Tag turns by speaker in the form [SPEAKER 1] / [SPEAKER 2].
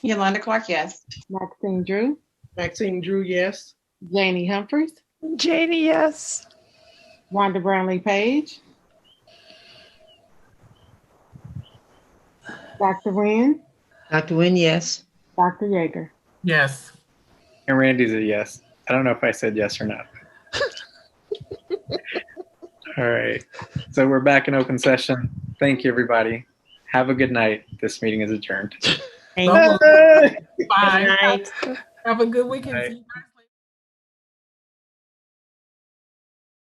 [SPEAKER 1] Yolanda Clark, yes.
[SPEAKER 2] Maxine Drew,
[SPEAKER 3] Maxine Drew, yes.
[SPEAKER 2] Janie Humphries,
[SPEAKER 4] Janie, yes.
[SPEAKER 2] Wanda Brownlee Page. Dr. Nguyen,
[SPEAKER 5] Dr. Nguyen, yes.
[SPEAKER 2] Dr. Yeager.
[SPEAKER 3] Yes.
[SPEAKER 6] And Randy's a yes. I don't know if I said yes or not. All right. So we're back in open session. Thank you, everybody. Have a good night. This meeting is adjourned.
[SPEAKER 3] Bye.
[SPEAKER 4] Hello.
[SPEAKER 3] Bye.
[SPEAKER 1] Night.
[SPEAKER 3] Have a good weekend.
[SPEAKER 6] Bye.
[SPEAKER 3] See you guys